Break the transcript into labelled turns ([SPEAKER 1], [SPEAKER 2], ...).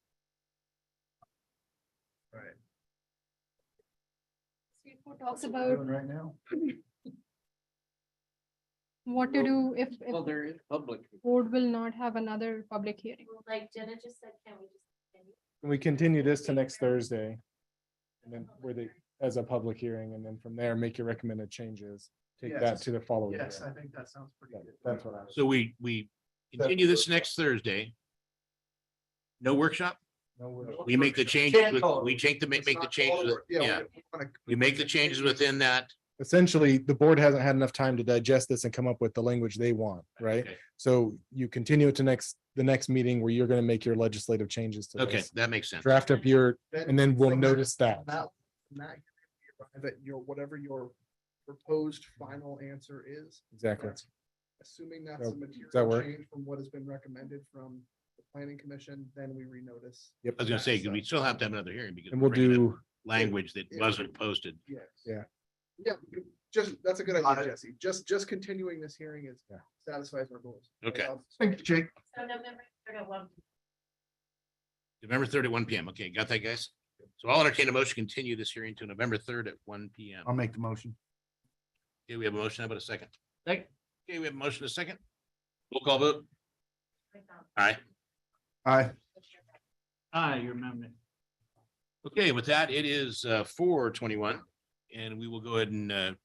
[SPEAKER 1] four talks
[SPEAKER 2] We're
[SPEAKER 1] about
[SPEAKER 2] doing right now.
[SPEAKER 1] what to do if,
[SPEAKER 3] Well,
[SPEAKER 1] if
[SPEAKER 3] there is public.
[SPEAKER 1] board will not have another public hearing.
[SPEAKER 4] Like Jenna just said, can we just? continue?
[SPEAKER 5] We continue this to next Thursday. And then where they, as a public hearing, and then from there, make your recommended changes. Take that
[SPEAKER 2] Yes.
[SPEAKER 5] to the following.
[SPEAKER 2] Yes, I
[SPEAKER 5] year.
[SPEAKER 2] think that sounds pretty
[SPEAKER 5] That-
[SPEAKER 2] good.
[SPEAKER 5] Oh, That's what I was,
[SPEAKER 6] So we, we continue this next Thursday. No workshop?
[SPEAKER 5] no, we're-
[SPEAKER 6] We make the changes, with- we take the, make the changes, with- yeah, we make the changes within that.
[SPEAKER 5] essentially, the board hasn't had enough time to digest this and come up with the language they want, right?
[SPEAKER 6] Okay.
[SPEAKER 5] So you continue it to next, the next meeting where you're gonna make your legislative changes to
[SPEAKER 6] Okay,
[SPEAKER 5] this.
[SPEAKER 6] that makes sense.
[SPEAKER 5] Draft up your, and then we'll
[SPEAKER 2] From
[SPEAKER 5] notice that.
[SPEAKER 2] That, that, that your, whatever your proposed final answer is,
[SPEAKER 5] Exactly.
[SPEAKER 2] assuming that's a
[SPEAKER 5] Oh, That- that
[SPEAKER 2] material
[SPEAKER 5] work?
[SPEAKER 2] change from what has been recommended from the planning commission, then we renotice.
[SPEAKER 5] Yep.
[SPEAKER 6] I was gonna say, 'cause we still have to have another hearing because.
[SPEAKER 5] And we'll
[SPEAKER 6] we're bringing up
[SPEAKER 5] do,
[SPEAKER 6] Language that wasn't posted.
[SPEAKER 2] Yes.
[SPEAKER 5] Yeah.
[SPEAKER 2] Yeah, just, that's a good idea, Jesse. Just, just continuing this hearing is
[SPEAKER 5] Yeah.
[SPEAKER 2] satisfies our goals.
[SPEAKER 6] Okay.
[SPEAKER 2] Thank you, Jake.
[SPEAKER 4] So November third at one.
[SPEAKER 6] November third at one PM. Okay, got that, guys? So I'll entertain a motion, to continue this hearing to November third at one PM.
[SPEAKER 2] I'll make the motion.
[SPEAKER 6] Okay, we have a motion, how about a second? Okay, we have a motion, a second? Roll call vote. All right.
[SPEAKER 2] Aye.
[SPEAKER 4] um,
[SPEAKER 3] Ah, your amendment.
[SPEAKER 6] Okay, with that, it is uh four twenty-one, and we will go ahead and uh